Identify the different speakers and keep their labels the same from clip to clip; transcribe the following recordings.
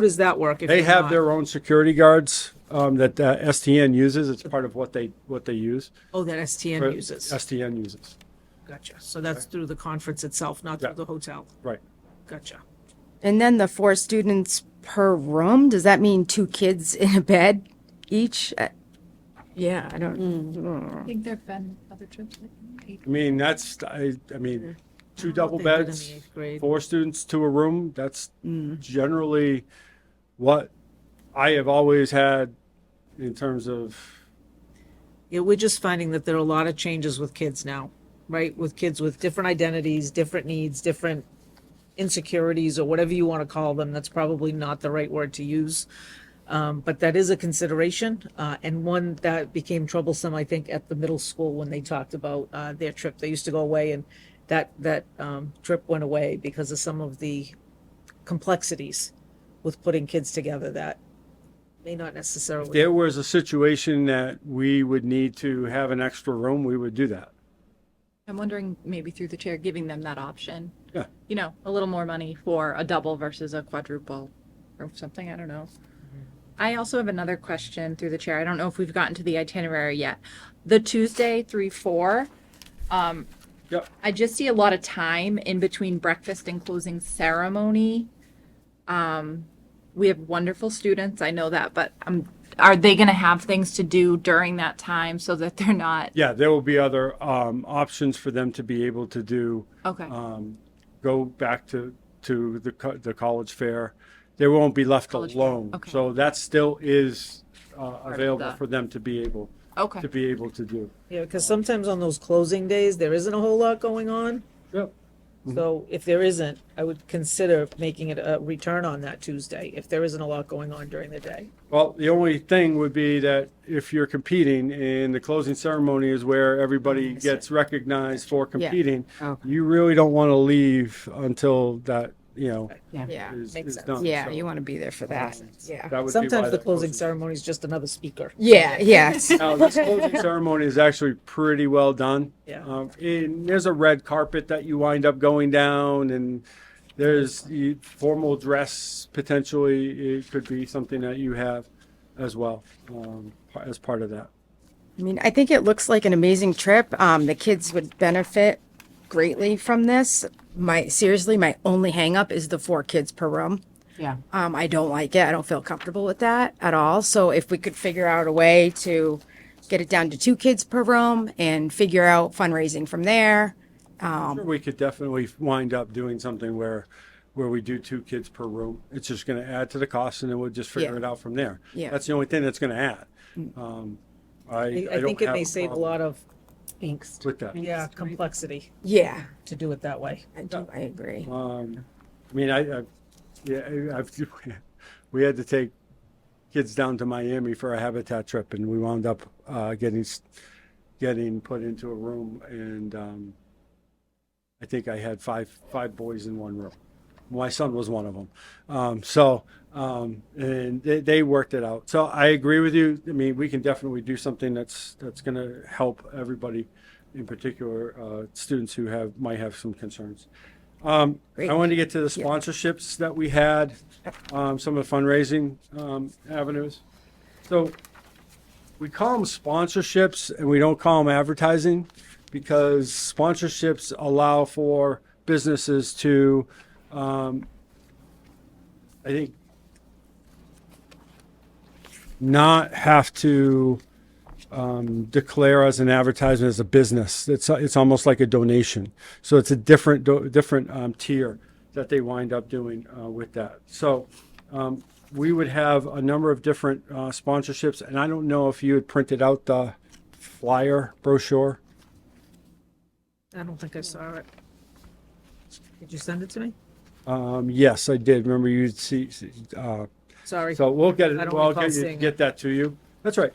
Speaker 1: does that work? if
Speaker 2: They
Speaker 1: you're
Speaker 2: have
Speaker 1: not?
Speaker 2: their own security guards um, that uh, STN uses. It's part of what they, what they use.
Speaker 1: Oh, that STN uses.
Speaker 2: STN uses,
Speaker 1: Gotcha. So that's through the conference itself, not
Speaker 2: Yeah.
Speaker 1: through the hotel.
Speaker 2: right.
Speaker 1: Gotcha.
Speaker 3: And then the four students per room, does that mean two kids in a bed each? Uh, Mm. Yeah, I don't,
Speaker 4: I think there've been other trips. that eight.
Speaker 2: I mean, that's, I, I mean, two double
Speaker 1: they did in
Speaker 2: beds,
Speaker 1: the eighth grade.
Speaker 2: four students to a room, that's
Speaker 1: Mm.
Speaker 2: generally what I have always had in terms of,
Speaker 1: Yeah, we're just finding that there are a lot of changes with kids now, right? With kids with different identities, different needs, different insecurities, or whatever you want to call them. That's probably not the right word to use. Um, but that is a consideration, uh, and one that became troublesome, I think, at the middle school when they talked about uh, their trip. They used to go away, and that that um, trip went away because of some of the complexities with putting kids together that may not necessarily.
Speaker 2: there was a situation that we would need to have an extra room, we would do that.
Speaker 4: I'm wondering, maybe through the chair, giving them that option.
Speaker 2: Yeah.
Speaker 4: You know, a little more money for a double versus a quadruple or something, I don't know. I also have another question through the chair. I don't know if we've gotten to the itinerary yet. The Tuesday, three, four,
Speaker 2: Yep.
Speaker 4: I just see a lot of time in between breakfast and closing ceremony. Um, we have wonderful students, I know that, but um, are they going to have things to do during that time so that they're not?
Speaker 2: Yeah, there will be other um, options for them to be able to do.
Speaker 4: Okay.
Speaker 2: um, go back to, to the, co- the college fair. They won't be left
Speaker 4: College fair,
Speaker 2: alone.
Speaker 4: okay.
Speaker 2: So that still is uh, available
Speaker 4: the-
Speaker 2: for them to be able,
Speaker 4: okay.
Speaker 2: to be able to do.
Speaker 1: Yeah, because sometimes on those closing days, there isn't a whole lot going on.
Speaker 2: Yep.
Speaker 1: So if there isn't, I would consider making it a return on that Tuesday if there isn't a lot going on during the day.
Speaker 2: Well, the only thing would be that if you're competing and the closing ceremony is where everybody gets recognized for competing,
Speaker 3: Okay.
Speaker 2: you really don't want to leave until that, you know,
Speaker 3: yeah,
Speaker 2: is
Speaker 1: Makes
Speaker 2: is
Speaker 1: sense.
Speaker 2: done.
Speaker 3: yeah,
Speaker 2: So
Speaker 3: you want to be there for that, yeah.
Speaker 2: that would be why
Speaker 1: Sometimes the
Speaker 2: that
Speaker 1: closing ceremony is just another speaker.
Speaker 3: Yeah, yes,
Speaker 2: Now, this closing ceremony is actually pretty well done.
Speaker 1: Yeah.
Speaker 2: Um, and there's a red carpet that you wind up going down, and there's the formal dress potentially. It could be something that you have as well um, as part of that.
Speaker 3: I mean, I think it looks like an amazing trip, um, the kids would benefit greatly from this. My, seriously, my only hangup is the four kids per room.
Speaker 1: Yeah.
Speaker 3: Um, I don't like it. I don't feel comfortable with that at all. So if we could figure out a way to get it down to two kids per room and figure out fundraising from there.
Speaker 2: Sure, we could definitely wind up doing something where where we do two kids per room. It's just going to add to the cost, and then we'll just figure
Speaker 3: Yeah.
Speaker 2: it out from there.
Speaker 3: Yeah.
Speaker 2: That's the only thing that's going to add. Um,
Speaker 1: Mm.
Speaker 2: I,
Speaker 1: I,
Speaker 2: I
Speaker 1: I
Speaker 2: don't
Speaker 1: think it
Speaker 2: have
Speaker 1: may save a
Speaker 2: problem
Speaker 1: lot of,
Speaker 5: angst.
Speaker 2: with that.
Speaker 1: yeah, complexity
Speaker 3: Yeah,
Speaker 1: to do it that way.
Speaker 3: I do. I agree.
Speaker 2: Um, I mean, I, I yeah, I- I've, we had to take kids down to Miami for a habitat trip, and we wound up uh, getting s- getting put into a room, and um, I think I had five five boys in one room. My son was one of them. Um, so, um, and they, they worked it out. So I agree with you. I mean, we can definitely do something that's that's going to help everybody, in particular uh, students who have might have some concerns. Um, I wanted to get to the sponsorships that we had, um, some of the fundraising um, avenues. So we call them sponsorships and we don't call them advertising because sponsorships allow for businesses to, um, I think, not have to um, declare as an advertisement as a business. It's it's almost like a donation. So it's a different do, different um, tier that they wind up doing uh, with that. So um, we would have a number of different uh, sponsorships, and I don't know if you had printed out the flyer brochure.
Speaker 1: I don't think I saw it. Did you send it to me?
Speaker 2: Um, yes, I did. Remember you'd see. see, Uh,
Speaker 1: Sorry.
Speaker 2: so we'll get
Speaker 1: I
Speaker 2: it.
Speaker 1: don't
Speaker 2: Well, I'll
Speaker 1: recall
Speaker 2: get, you,
Speaker 1: seeing
Speaker 2: get that to you. That's right.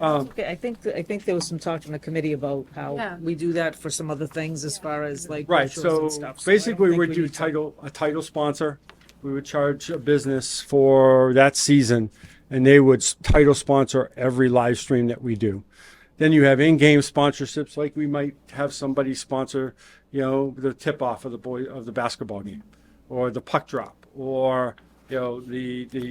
Speaker 1: Okay, I think, th- I think there was some talk in the committee about how
Speaker 4: Yeah.
Speaker 1: we do that for some other things as far as like.
Speaker 2: Right,
Speaker 1: brochures and
Speaker 2: so
Speaker 1: stuff. So I don't
Speaker 2: basically,
Speaker 1: think
Speaker 2: we'd
Speaker 1: we
Speaker 2: do
Speaker 1: need to-
Speaker 2: title, a title sponsor. We would charge a business for that season, and they would s- title sponsor every live stream that we do. Then you have in-game sponsorships, like we might have somebody sponsor, you know, the tip-off of the boy, of the basketball game, or the puck drop, or you know, the, the